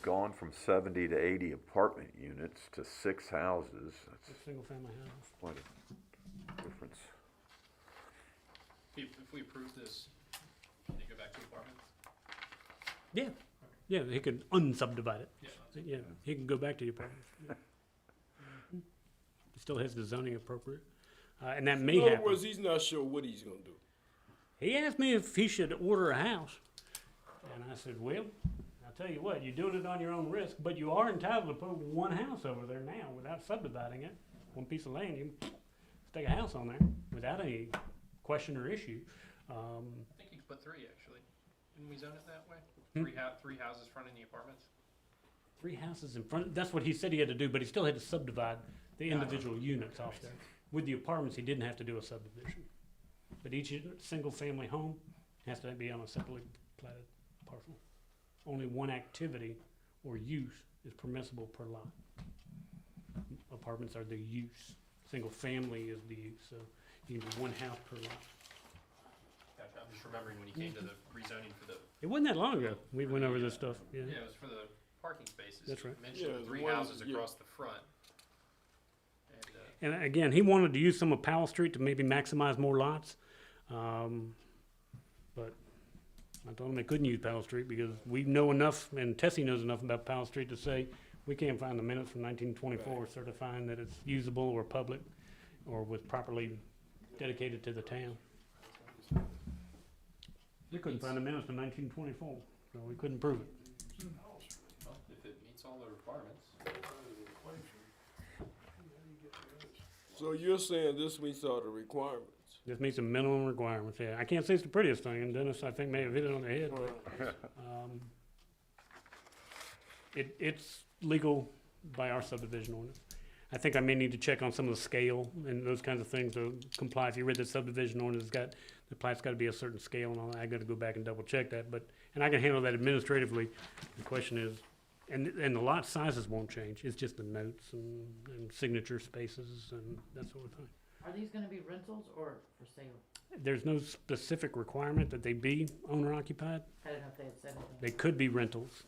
gone from seventy to eighty apartment units to six houses. That's a single-family house. quite a difference. If, if we approve this, can you go back to apartments? Yeah, yeah, he could unsubdivide it. Yeah. Yeah, he can go back to your parents. yeah. Mhm. Still has the zoning appropriate, uh, and that may In other happen. words, he's not sure what he's gonna do. He asked me if he should order a house, and I said, well, I'll tell you what, you're doing it on your own risk, but you are entitled to put one house over there now without subdividing it. One piece of land, you can stick a house on there without any question or issue. Um, I think you could put three, actually. Didn't we zone it that way? Hmm? Three hou- three houses fronting the apartments? Three houses in front, that's what he said he had to do, but he still had to subdivide the individual units off there. With the apartments, he didn't have to do a subdivision. But each single-family home has to be on a separately platted parcel. Only one activity or use is permissible per lot. Apartments are the use, single-family is the use, so you can do one house per lot. Gotcha, I'm just remembering when you came to the rezoning for the, It wasn't that long ago, we went over this stuff, yeah. yeah, it was for the parking spaces. That's right. You Mentioned Yeah, the the three ones- houses yeah. across the front. And, uh, And again, he wanted to use some of Powell Street to maybe maximize more lots. Um, but I told him they couldn't use Powell Street because we know enough, and Tessie knows enough about Powell Street to say, we can't find the minutes from nineteen twenty-four certifying that it's usable or public or was properly dedicated to the town. We couldn't find the minutes from nineteen twenty-four, so we couldn't prove it. well, if it meets all the requirements. So you're saying this meets all the requirements? This meets the minimum requirements, yeah. I can't say it's the prettiest thing, and Dennis, I think, may have hit it on the head. Um, It, it's legal by our subdivision ordinance. I think I may need to check on some of the scale and those kinds of things to comply. If you read the subdivision ordinance, it's got, the plat's gotta be a certain scale and all that. I gotta go back and double check that, but, and I can handle that administratively. The question is, and, and the lot sizes won't change. It's just the notes and, and signature spaces and that sort of thing. Are these gonna be rentals or for sale? There's no specific requirement that they be owner occupied. I don't know if they had said anything. They could be rentals.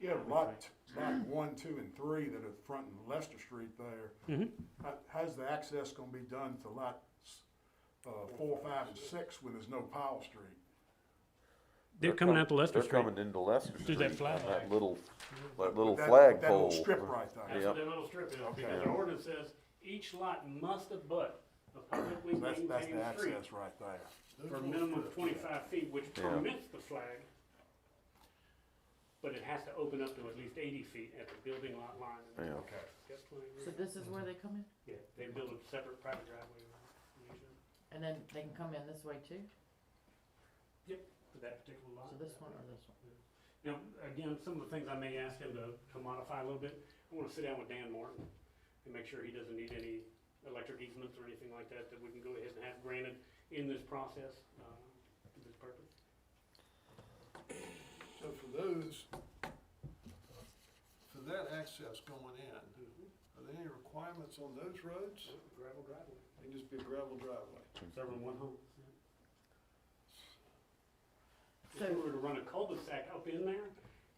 Yeah, lot, lot one, two, and three that are fronting Lester Street there. Mm-hmm. Mhm. How- How's the access gonna be done to lot, s- uh, four, five, and six when there's no Powell Street? They're coming out to Lester They're Street. coming into Lester Street. Through that flag. on That little, that little That- flagpole. That little strip right there. That's what that little strip is, because the Okay. ordinance says each lot must abut a publicly That's, that's the maintained street access right there. for a minimum of twenty-five feet, which Yeah. permits the flag. But it has to open up to at least eighty feet at the building lot line. and Yeah. Okay. that's what I So read. this is where they come in? Yeah, they build a separate private driveway. around the And then they can come in this way too? user For that particular lot. So this one or this one? Now, again, some of the things I may ask him to, to modify a little bit, I wanna sit down with Dan Martin and make sure he doesn't need any electric easements or anything like that that we can go ahead and have granted in this process, um, for this purpose. So for those, for that access going in, are there any requirements on those roads? Gravel driveway. They just be a gravel driveway. Serving one home. If we So, were to run a cul-de-sac up in there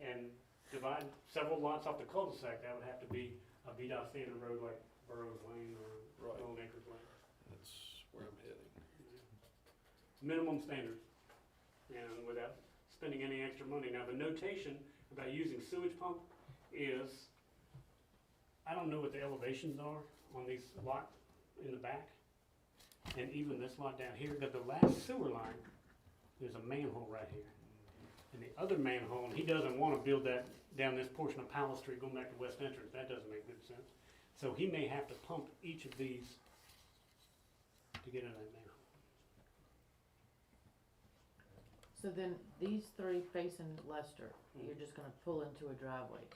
and divide several lots off the cul-de-sac, that would have to be a VDOT standard road like Burroughs Lane or Right. Golden Acres Lane. That's where I'm heading. minimum standards, and without spending any extra money. Now, the notation about using sewage pump is, I don't know what the elevations are on these lot in the back, and even this lot down here, but the last sewer line, there's a manhole right here. And the other manhole, and he doesn't wanna build that down this portion of Powell Street going back to West Entrance, that doesn't make good sense. So he may have to pump each of these to get in that manhole. so then these three facing Lester, you're just gonna pull into a driveway.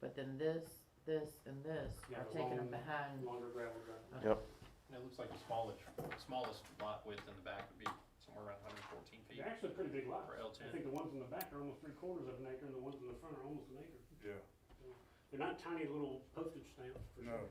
But then this, this, and this Yeah, are the taking them long- behind. Longer gravel driveway. And it looks like the smallest, smallest lot width in the back would be somewhere around hundred and fourteen feet They're actually pretty big lots. for L I ten. think the ones in the back are almost three quarters of an acre, and the ones in the front are almost an acre. Yeah, They're not tiny little postage stamps, for no, sure.